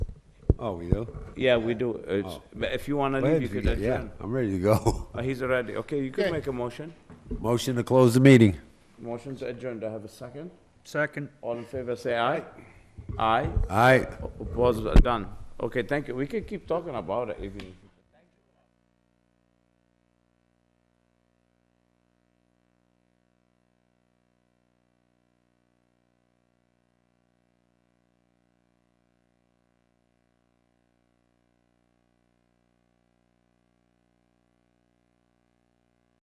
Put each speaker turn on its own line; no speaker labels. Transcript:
Oh, we do?
Yeah, we do. It's- but If you want to
Oh. Go ahead
leave, you
if you
could
get- Yeah,
adjourn.
I'm ready to go.
Uh, He's already, okay, you could
Okay.
make a motion.
Motion to close the meeting.
Motion's adjourned. Do I have a second?
Second.
All in favor, say aye. Aye.
All right.
Opposed, done. Okay, thank you. We can keep talking about it if you.